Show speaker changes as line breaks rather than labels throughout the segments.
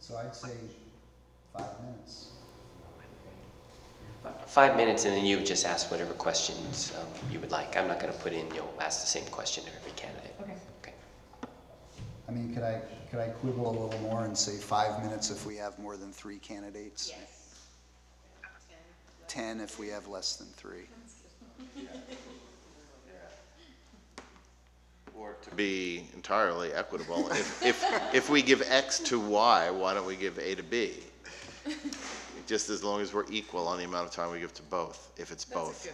So I'd say five minutes.
Five minutes, and then you just ask whatever questions um, you would like. I'm not going to put in, you'll ask the same question to every candidate.
Okay.
Okay.
I mean, could I, could I quibble a little more and say five minutes if we have more than three candidates?
Yes.
Ten if we have less than three.
Or to be entirely equitable, if, if, if we give X to Y, why don't we give A to B? Just as long as we're equal on the amount of time we give to both, if it's both.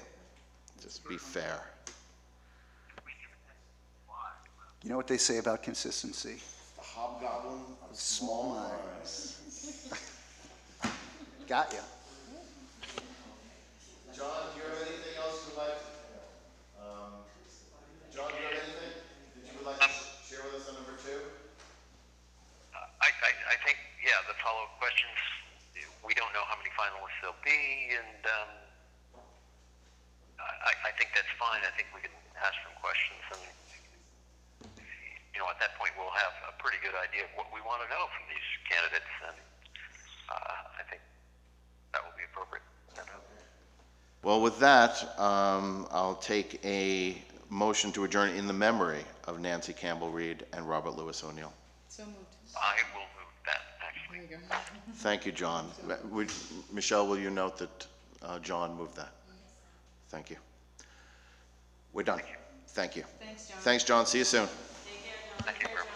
Just be fair.
You know what they say about consistency?
Hobgoblin of
Small minds. Got ya.
John, do you have anything else you'd like? um, John, do you have anything that you would like to share with us on number two?
I, I, I think, yeah, the follow-up questions, we don't know how many finalists there'll be, and um, I, I- I think that's fine. I think we can ask some questions, and, you know, at that point, we'll have a pretty good idea of what we want to know from these candidates, and uh, I think that will be appropriate.
Well, with that, um, I'll take a motion to adjourn in the memory of Nancy Campbell Reed and Robert Louis O'Neill.
So moved.
I will move that,
There
actually.
you go.
Thank you, John. Ma- would- Michelle, will you note that uh, John moved that? Thank you. We're done. Thank you.
Thanks, John.
Thanks, John. See you soon.
Thank you very much.